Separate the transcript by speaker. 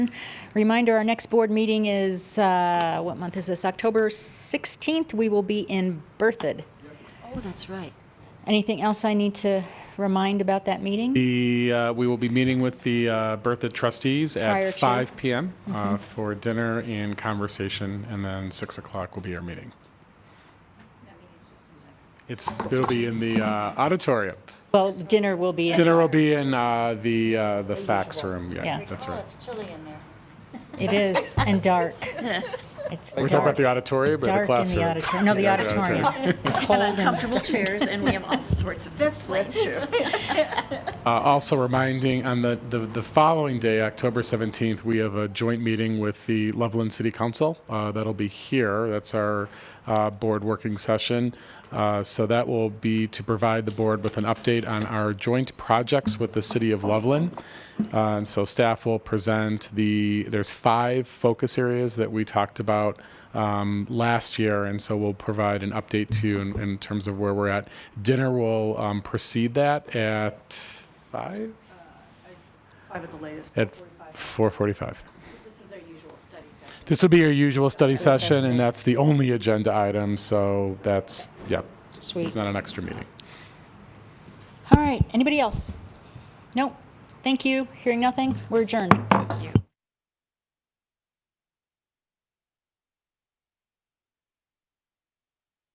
Speaker 1: Reminder, our next board meeting is, uh, what month is this? October 16th. We will be in Berthoud.
Speaker 2: Oh, that's right.
Speaker 1: Anything else I need to remind about that meeting?
Speaker 3: The, uh, we will be meeting with the uh, Bertha trustees
Speaker 1: Prior
Speaker 3: at
Speaker 1: to. Mm-hmm.
Speaker 3: 5 PM uh, for dinner and conversation, and then 6 o'clock will be our meeting. It's, it'll be in the uh, auditorium.
Speaker 1: Well, dinner will be in,
Speaker 3: Dinner will be in uh, the, uh, the fax room, yeah,
Speaker 1: Yeah.
Speaker 3: that's
Speaker 2: Oh,
Speaker 3: right.
Speaker 2: it's chilly in there.
Speaker 1: it is, and dark. It's
Speaker 3: We're talking about
Speaker 1: dark,
Speaker 3: the auditorium or the
Speaker 1: dark in
Speaker 3: classroom?
Speaker 1: the auditorium, no, the
Speaker 3: Yeah, the
Speaker 1: auditorium. Cold and
Speaker 4: comfortable chairs, and we have all sorts of complaints.
Speaker 3: Uh, Also reminding, on the, the, the following day, October 17th, we have a joint meeting with the Loveland City Council. Uh, That'll be here. That's our uh, board working session. Uh, So that will be to provide the board with an update on our joint projects with the city of Loveland. Uh, And so staff will present the, there's five focus areas that we talked about um, last year, and so we'll provide an update to you in, in terms of where we're at. Dinner will um, precede that at five?
Speaker 5: Uh, Five at the latest.
Speaker 3: At 4:45.
Speaker 4: This is our usual study session.
Speaker 3: This will be your usual study session, and that's the only agenda item, so that's, yep.
Speaker 1: Sweet.
Speaker 3: It's not an extra meeting.
Speaker 1: All right, anybody else? No, thank you, hearing nothing, we're adjourned.
Speaker 4: Thank you.